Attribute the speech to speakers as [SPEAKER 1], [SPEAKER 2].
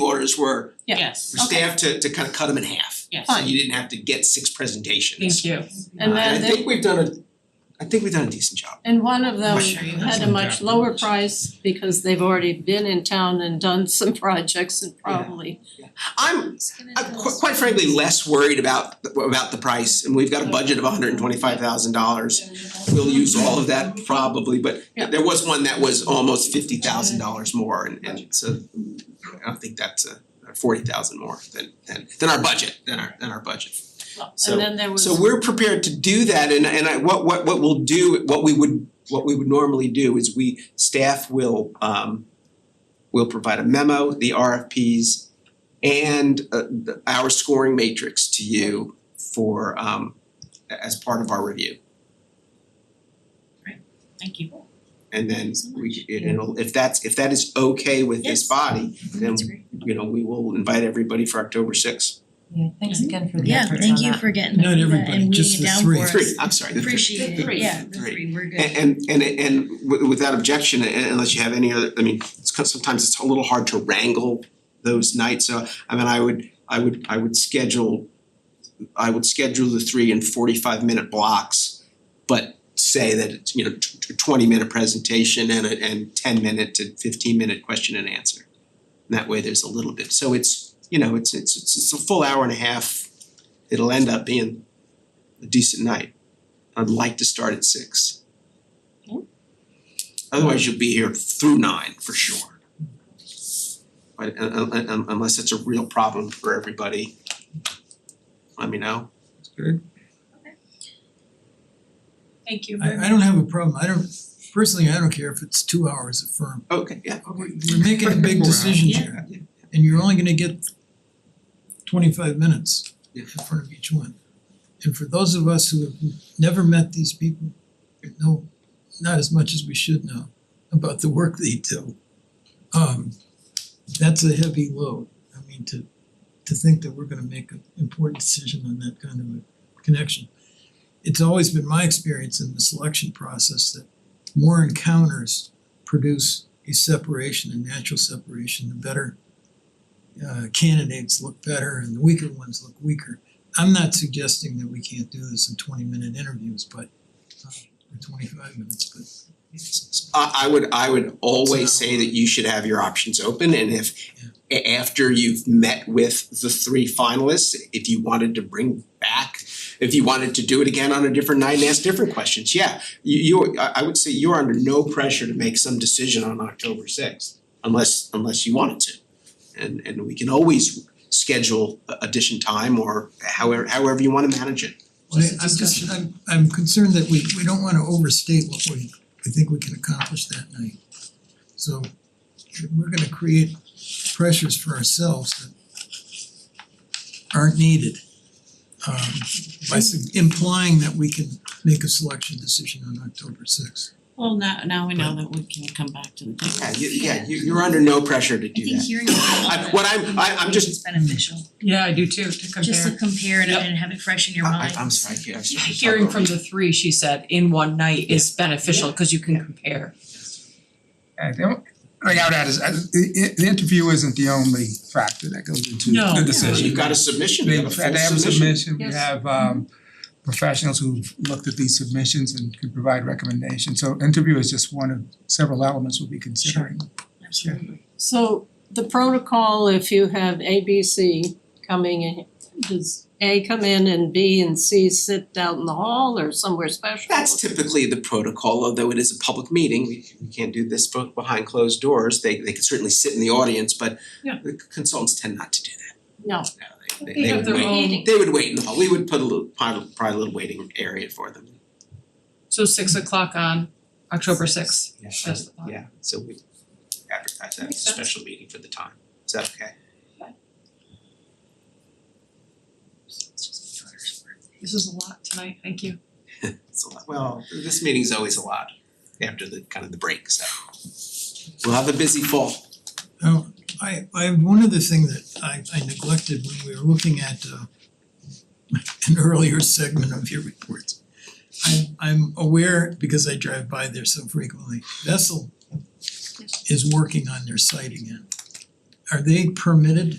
[SPEAKER 1] numbers were
[SPEAKER 2] Yeah.
[SPEAKER 3] Yes,
[SPEAKER 1] for
[SPEAKER 2] Okay.
[SPEAKER 1] staff to to kind of cut them in half.
[SPEAKER 3] yes.
[SPEAKER 1] So you didn't have to get six presentations.
[SPEAKER 3] Thank you.
[SPEAKER 2] And
[SPEAKER 1] Uh,
[SPEAKER 2] then
[SPEAKER 1] I
[SPEAKER 2] they,
[SPEAKER 1] think we've done a, I think we've done a decent job.
[SPEAKER 2] and one of them
[SPEAKER 3] Sure, you have
[SPEAKER 2] had a
[SPEAKER 4] some
[SPEAKER 2] much
[SPEAKER 4] gap
[SPEAKER 2] lower
[SPEAKER 4] numbers.
[SPEAKER 2] price because they've already been in town and done some projects and probably.
[SPEAKER 1] I'm I'm qu- quite frankly less worried about the- about the price and we've got a budget of hundred and twenty five thousand dollars. We'll use all of that probably, but
[SPEAKER 2] Yeah.
[SPEAKER 1] there was one that was almost fifty thousand dollars more and and so I don't think that's a forty thousand more than than than our budget, than our than our budget. So-
[SPEAKER 2] And then there was.
[SPEAKER 1] So we're prepared to do that and and I what what what we'll do, what we would what we would normally do is we staff will um will provide a memo, the RFPs and uh the our scoring matrix to you for um a- as part of our review.
[SPEAKER 3] Thank you.
[SPEAKER 1] And then we it'll if that's if that is okay with this
[SPEAKER 3] Yes. Mm-hmm.
[SPEAKER 1] body, then you know, we will invite everybody for October sixth.
[SPEAKER 5] Yeah, thanks again for the
[SPEAKER 6] Yeah,
[SPEAKER 5] efforts on
[SPEAKER 6] thank you
[SPEAKER 5] that.
[SPEAKER 6] for getting
[SPEAKER 4] Not
[SPEAKER 6] that feedback
[SPEAKER 4] everybody,
[SPEAKER 6] and
[SPEAKER 4] just
[SPEAKER 6] weeding it
[SPEAKER 4] the
[SPEAKER 6] down
[SPEAKER 4] three.
[SPEAKER 6] for us.
[SPEAKER 1] Three, I'm sorry, the three.
[SPEAKER 6] Appreciate
[SPEAKER 2] The
[SPEAKER 6] it,
[SPEAKER 2] three.
[SPEAKER 6] yeah, the
[SPEAKER 1] Three.
[SPEAKER 6] three, we're good.
[SPEAKER 1] And and and and wi- without objection, and unless you have any other, I mean, it's 'cause sometimes it's a little hard to wrangle those nights, so I mean, I would, I would, I would schedule I would schedule the three in forty five minute blocks, but say that it's, you know, tw- tw- twenty minute presentation and a and ten minute to fifteen minute question and answer. And that way there's a little bit, so it's, you know, it's it's it's it's a full hour and a half, it'll end up being a decent night. I'd like to start at six. Otherwise, you'll be here through nine for sure. But un- un- un- unless it's a real problem for everybody, let me know.
[SPEAKER 2] Thank you very much.
[SPEAKER 4] I I don't have a problem, I don't, personally, I don't care if it's two hours a firm,
[SPEAKER 1] Okay, yeah,
[SPEAKER 4] we're we're making a big
[SPEAKER 1] Wow.
[SPEAKER 4] decision here. And you're only gonna get twenty-five minutes
[SPEAKER 1] Yeah.
[SPEAKER 4] in front of each one. And for those of us who have never met these people, we know not as much as we should know about the work they do. Um that's a heavy load, I mean, to to think that we're gonna make an important decision on that kind of a connection. It's always been my experience in the selection process that more encounters produce a separation, a natural separation, the better uh candidates look better and the weaker ones look weaker. I'm not suggesting that we can't do this in twenty minute interviews, but uh or twenty five minutes, but
[SPEAKER 1] I I would I would always say that you should have your options open and if a- after you've met with the three finalists, if you wanted to bring back, if you wanted to do it again on a different night and ask different questions, yeah. You you I I would say you're under no pressure to make some decision on October sixth unless unless you wanted to. And and we can always schedule a- addition time or however however you wanna manage it.
[SPEAKER 4] I I'm just, I'm I'm concerned that we we don't wanna overstate what we we think we can accomplish that night. So we're gonna create pressures for ourselves that aren't needed. Um by s- implying that we can make a selection decision on October sixth.
[SPEAKER 3] Well, now now we know that we can come back to the
[SPEAKER 1] Yeah,
[SPEAKER 3] table.
[SPEAKER 1] you yeah, you you're under no pressure to
[SPEAKER 6] I
[SPEAKER 1] do that.
[SPEAKER 6] think hearing
[SPEAKER 1] I- what I'm- I- I'm just-
[SPEAKER 6] It's beneficial,
[SPEAKER 7] Yeah, I do too, to
[SPEAKER 6] just to
[SPEAKER 7] compare.
[SPEAKER 6] compare it
[SPEAKER 7] Yep.
[SPEAKER 6] and have it fresh in your
[SPEAKER 1] I-
[SPEAKER 6] mind.
[SPEAKER 1] I- I'm sorry, yeah, I'm sorry. I'm sorry.
[SPEAKER 7] Hearing from the three, she said, in one night is beneficial because you can compare.
[SPEAKER 8] And the only thing I would add is, uh, the the interview isn't the only factor that goes into
[SPEAKER 7] No. No.
[SPEAKER 8] the
[SPEAKER 1] So
[SPEAKER 8] decision.
[SPEAKER 1] you've got a submission,
[SPEAKER 8] They
[SPEAKER 1] you have a
[SPEAKER 8] have
[SPEAKER 1] full
[SPEAKER 8] they have a
[SPEAKER 1] submission.
[SPEAKER 8] submission, we
[SPEAKER 2] Yes.
[SPEAKER 8] have um professionals who've looked at these submissions and can provide recommendations. So interview is just one of several elements we'll be considering.
[SPEAKER 6] Absolutely.
[SPEAKER 2] So the protocol, if you have A, B, C coming in, does A come in and B and C sit out in the hall or somewhere special?
[SPEAKER 1] That's typically the protocol, although it is a public meeting, we we can't do this both behind closed doors, they they can certainly sit in the audience, but
[SPEAKER 7] Yeah.
[SPEAKER 1] the consultants tend not to do
[SPEAKER 2] No,
[SPEAKER 1] that, no, they
[SPEAKER 7] They
[SPEAKER 1] they they
[SPEAKER 7] have
[SPEAKER 1] would
[SPEAKER 7] their
[SPEAKER 1] wait,
[SPEAKER 7] own-
[SPEAKER 1] they would wait in the hall, we would put a little, probably probably a little waiting area for them.
[SPEAKER 7] So six o'clock on October sixth. That's the thought.
[SPEAKER 1] Yeah, so we advertise that as
[SPEAKER 7] Makes
[SPEAKER 1] a
[SPEAKER 7] sense.
[SPEAKER 1] special meeting for the time, is that okay?
[SPEAKER 6] It's just my daughter's work.
[SPEAKER 7] This is a lot tonight, thank you.
[SPEAKER 1] It's a lot, well, this meeting's always a lot after the kind of the break, so. We'll have a busy fall.
[SPEAKER 4] Now, I I one other thing that I I neglected when we were looking at uh an earlier segment of your reports. I'm I'm aware because I drive by there so frequently, Vessel is working on their site again. Are they permitted